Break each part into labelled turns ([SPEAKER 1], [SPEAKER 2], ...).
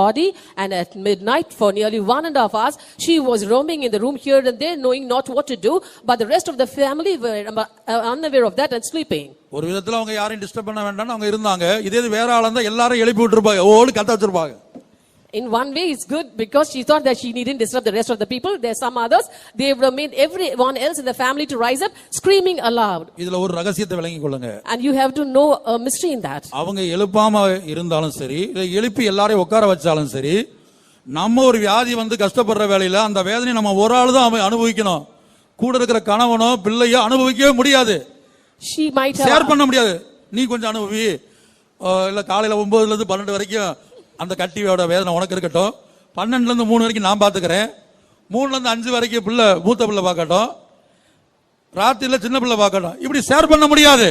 [SPEAKER 1] body and at midnight for nearly one and a half hours she was roaming in the room here and there knowing not what to do but the rest of the family were um, uh, unaware of that and sleeping
[SPEAKER 2] ஒரு விதத்துல அவங்க யாரையும் disturb பண்ண வேண்டாம்னு அவங்க இருந்தாங்க இதே இது வேற ஆளா இருந்தா எல்லாரும் எழுப்பி விட்டுருப்பாங்க ஓடு கத்த வச்சிருப்பாங்க
[SPEAKER 1] in one way it's good because she thought that she needn't disturb the rest of the people there's some others they would have made everyone else in the family to rise up screaming aloud
[SPEAKER 2] இதுல ஒரு ரகசியத்தை விளங்கி கொள்ளுங்க
[SPEAKER 1] and you have to know a mystery in that
[SPEAKER 2] அவங்க எழுப்பாம இருந்தாலும் சரி இல்லை எழுப்பி எல்லாரையும் உட்கார வச்சாலும் சரி நம்ம ஒரு வியாதி வந்து கஷ்டப்படுற வேலையில அந்த வேதனையை நம்ம ஒரு ஆள் தான் அவன் அனுபவிக்கணும் கூட இருக்கிற கணவனோ பிள்ளையோ அனுபவிக்கவே முடியாது
[SPEAKER 1] she might have
[SPEAKER 2] ஷேர் பண்ண முடியாது நீ கொஞ்சம் அனுபவி அஹ் இல்ல காலையில ஒன்பதுல இருந்து பன்னெண்டு வரைக்கும் அந்த கட்டியோட வேதனை உனக்கு இருக்கட்டும் பன்னெண்டுல இருந்து மூணு வரைக்கும் நான் பாத்துக்கிறேன் மூணுல இருந்து அஞ்சு வரைக்கும் பிள்ளை மூத்த பிள்ளை பார்க்கட்டும் ராத்திரில சின்ன பிள்ளை பார்க்கட்டும் இப்படி ஷேர் பண்ண முடியாது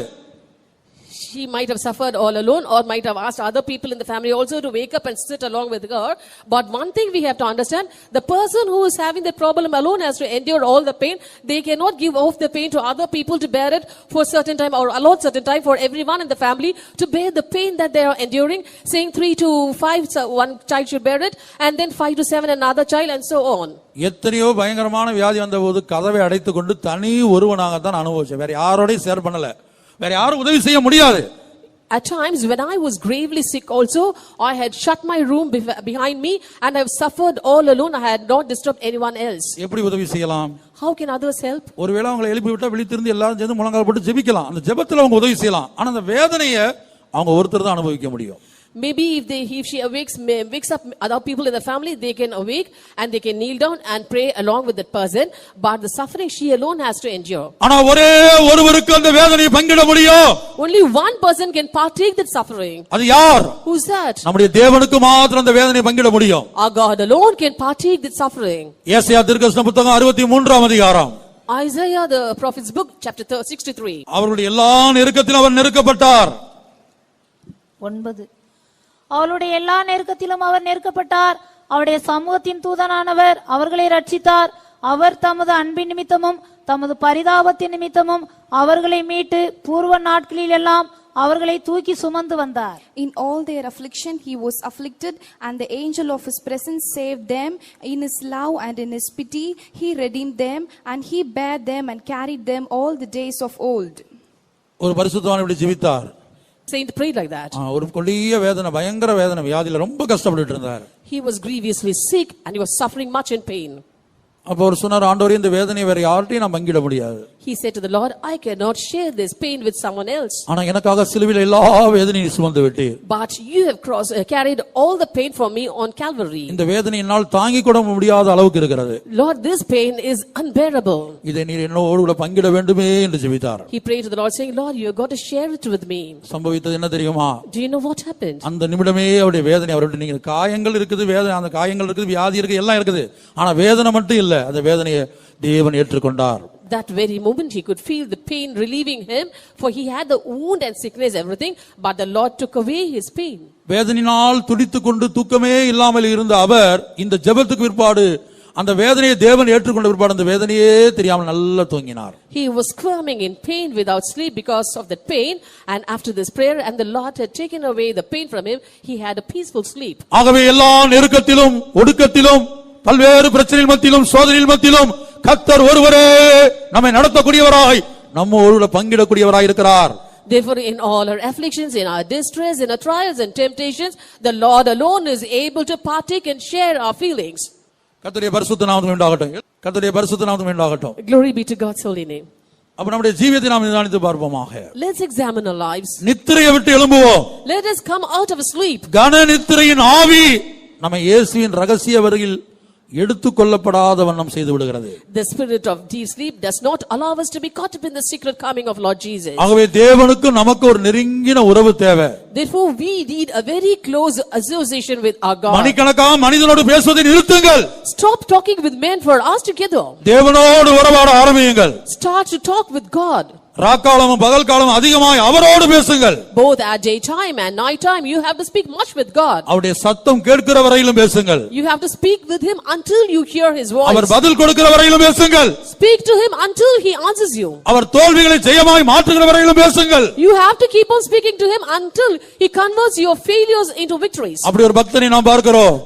[SPEAKER 1] She might have suffered all alone or might have asked other people in the family also to wake up and sit along with her. But one thing we have to understand, the person who is having the problem alone has to endure all the pain. They cannot give off the pain to other people to bear it for a certain time or allot certain time for everyone in the family to bear the pain that they are enduring, saying three to five, so one child should bear it and then five to seven another child and so on.
[SPEAKER 2] எத்தனையோ பயங்கரமான வியாதி வந்தபோது கதவை அடைத்துக் கொண்டு தனி ஒருவனாகத்தான் அனுபவிச்சேன் வேற யாரோடையும் share பண்ணல வேற யாரும் உதவி செய்ய முடியாது
[SPEAKER 1] At times, when I was gravely sick, also, I had shut my room bef- behind me and I've suffered all alone. I had not disturbed anyone else.
[SPEAKER 2] எப்படி உதவி செய்யலாம்
[SPEAKER 1] How can others help?
[SPEAKER 2] ஒருவேளை அவங்களை எழுப்பி விட்டா விழித்திருந்து எல்லாரும் சேர்ந்து முழங்கால் போட்டு ஜெபிக்கலாம் அந்த ஜெபத்துல அவங்க உதவி செய்யலாம் ஆனா அந்த வேதனையை அவங்க ஒருத்தர் தான் அனுபவிக்க முடியும்
[SPEAKER 1] Maybe if, they, if she awakes, may- wakes up other people in the family, they can awake and they can kneel down and pray along with that person. But the suffering she alone has to endure.
[SPEAKER 2] ஆனா ஒரே ஒருவருக்கு அந்த வேதனையை பங்கிட முடியும்
[SPEAKER 1] Only one person can partake that suffering.
[SPEAKER 2] அது யார்
[SPEAKER 1] Who's that?
[SPEAKER 2] நம்முடைய தேவனுக்கு மாத்திரம் அந்த வேதனையை பங்கிட முடியும்
[SPEAKER 1] Our God alone can partake that suffering.
[SPEAKER 2] ஏசாயா திருக்கஷ்ண புத்தகம் அறுபத்தி மூன்றாம் அதிகாரம்
[SPEAKER 1] Isaiah, the prophet's book, chapter thir- 63.
[SPEAKER 2] அவருடைய எல்லா நெருக்கத்திலும் அவர் நெருக்கப்பட்டார்
[SPEAKER 3] ஒன்பது அவளுடைய எல்லா நெருக்கத்திலும் அவர் நெருக்கப்பட்டார் அவருடைய சமூகத்தின் தூதனானவர் அவர்களை ரட்சித்தார் அவர் தமது அன்பின் நிமித்தமும் தமது பரிதாபத்தின் நிமித்தமும் அவர்களை மீட்டு பூர்வ நாட்களில் எல்லாம் அவர்களை தூக்கி சுமந்து வந்தார்
[SPEAKER 4] In all their affliction, he was afflicted, and the angel of his presence saved them. In his love and in his pity, he redeemed them, and he bare them and carried them all the days of old.
[SPEAKER 2] ஒரு பரிசுத்தவான் இப்படி ஜெபித்தார்
[SPEAKER 1] Saint prayed like that.
[SPEAKER 2] ஆ, ஒரு கொடிய வேதனை பயங்கர வேதனை வியாதியில ரொம்ப கஷ்டப்பட்டுட்டு இருந்தார்
[SPEAKER 1] He was grievously sick and he was suffering much in pain.
[SPEAKER 2] அப்போ அவர் சொன்னார் ஆண்டவரே இந்த வேதனையை வேற யார்ட்டையும் நான் பங்கிட முடியாது
[SPEAKER 1] He said to the Lord, I cannot share this pain with someone else.
[SPEAKER 2] ஆனா எனக்காக சிலுவையில் எல்லா வேதனையும் சுமந்து விட்டீர்
[SPEAKER 1] But you have crossed, uh, carried all the pain for me on Calvary.
[SPEAKER 2] இந்த வேதனை என்னால் தாங்கிக் கூட முடியாத அளவுக்கு இருக்கிறது
[SPEAKER 1] Lord, this pain is unbearable.
[SPEAKER 2] இதை நீர் என்னோடு கூட பங்கிட வேண்டுமே என்று ஜெபித்தார்
[SPEAKER 1] He prayed to the Lord, saying, Lord, you've got to share it with me.
[SPEAKER 2] சம்பவித்தது என்ன தெரியுமா
[SPEAKER 1] Do you know what happened?
[SPEAKER 2] அந்த நிமிடமே அவருடைய வேதனை அவருடைய நீங்க காயங்கள் இருக்குது வேதனை அந்த காயங்கள் இருக்குது வியாதி இருக்குது எல்லாம் இருக்குது ஆனா வேதனை மட்டும் இல்ல அந்த வேதனையை தேவன் ஏற்றுக்கொண்டார்
[SPEAKER 1] That very moment he could feel the pain relieving him, for he had the wound and sickness, everything, but the Lord took away his pain.
[SPEAKER 2] வேதனையினால் துடித்துக் கொண்டு தூக்கமே இல்லாமல் இருந்த அவர் இந்த ஜெபத்துக்கு பிற்பாடு அந்த வேதனையை தேவன் ஏற்றுக்கொண்ட பிற்பாடு அந்த வேதனையே தெரியாமல் நல்லா தூங்கினார்
[SPEAKER 1] He was squirming in pain without sleep because of that pain. And after this prayer, and the Lord had taken away the pain from him, he had a peaceful sleep.
[SPEAKER 2] ஆகவே எல்லா நெருக்கத்திலும் ஒடுக்கத்திலும் பல்வேறு பிரச்சனைகள் மத்தியிலும் சோதனைகள் மத்தியிலும் கத்தர் ஒருவரே நம்மை நடத்தக்கூடியவராய் நம்ம ஒருவரை பங்கிடக்கூடியவராய் இருக்கிறார்
[SPEAKER 1] Therefore, in all our afflictions, in our distress, in our trials and temptations, the Lord alone is able to partake and share our feelings.
[SPEAKER 2] கர்த்தருடைய பரிசுத்த நாமத்துக்கு உண்டாகட்டும் கர்த்தருடைய பரிசுத்த நாமத்துக்கு உண்டாகட்டும்
[SPEAKER 1] Glory be to God's holy name.
[SPEAKER 2] அப்ப நம்முடைய ஜீவியத்தை நாம் நிதானித்து பார்ப்போமாக
[SPEAKER 1] Let's examine our lives.
[SPEAKER 2] நித்திரையை விட்டு எழும்புவோம்
[SPEAKER 1] Let us come out of sleep.
[SPEAKER 2] கன நித்திரையின் ஆவி நம்ம இயேசுவின் ரகசிய வருகில் எடுத்துக்கொள்ளப்படாத வண்ணம் செய்து விடுகிறது
[SPEAKER 1] The spirit of deep sleep does not allow us to be caught up in the secret coming of Lord Jesus.
[SPEAKER 2] ஆகவே தேவனுக்கு நமக்கு ஒரு நெருங்கின உறவு தேவை
[SPEAKER 1] Therefore, we need a very close association with our God.
[SPEAKER 2] மணிக்கணக்கா மனிதனோடு பேசுவதை நிறுத்துங்கள்
[SPEAKER 1] Stop talking with men for hours together.
[SPEAKER 2] தேவனோடு உறவாட ஆரம்பியுங்கள்
[SPEAKER 1] Start to talk with God.
[SPEAKER 2] ராக்காலமும் பகல் காலமும் அதிகமாய் அவரோடு பேசுங்கள்
[SPEAKER 1] Both at daytime and nighttime, you have to speak much with God.
[SPEAKER 2] அவருடைய சத்தம் கேட்கிற வரையிலும் பேசுங்கள்
[SPEAKER 1] You have to speak with Him until you hear His
[SPEAKER 2] our
[SPEAKER 1] voice.
[SPEAKER 2] பதில் கொடுக்கிற வரையிலும் பேசுங்கள்
[SPEAKER 1] Speak to Him until He answers you.
[SPEAKER 2] அவர் தோல்விகளை ஜெயமாய் மாற்றுகிற வரையிலும் பேசுங்கள்
[SPEAKER 1] You have to keep on speaking to Him until He converts your failures into victories.
[SPEAKER 2] அப்படி ஒரு பக்தனை நாம் பார்க்கிறோம்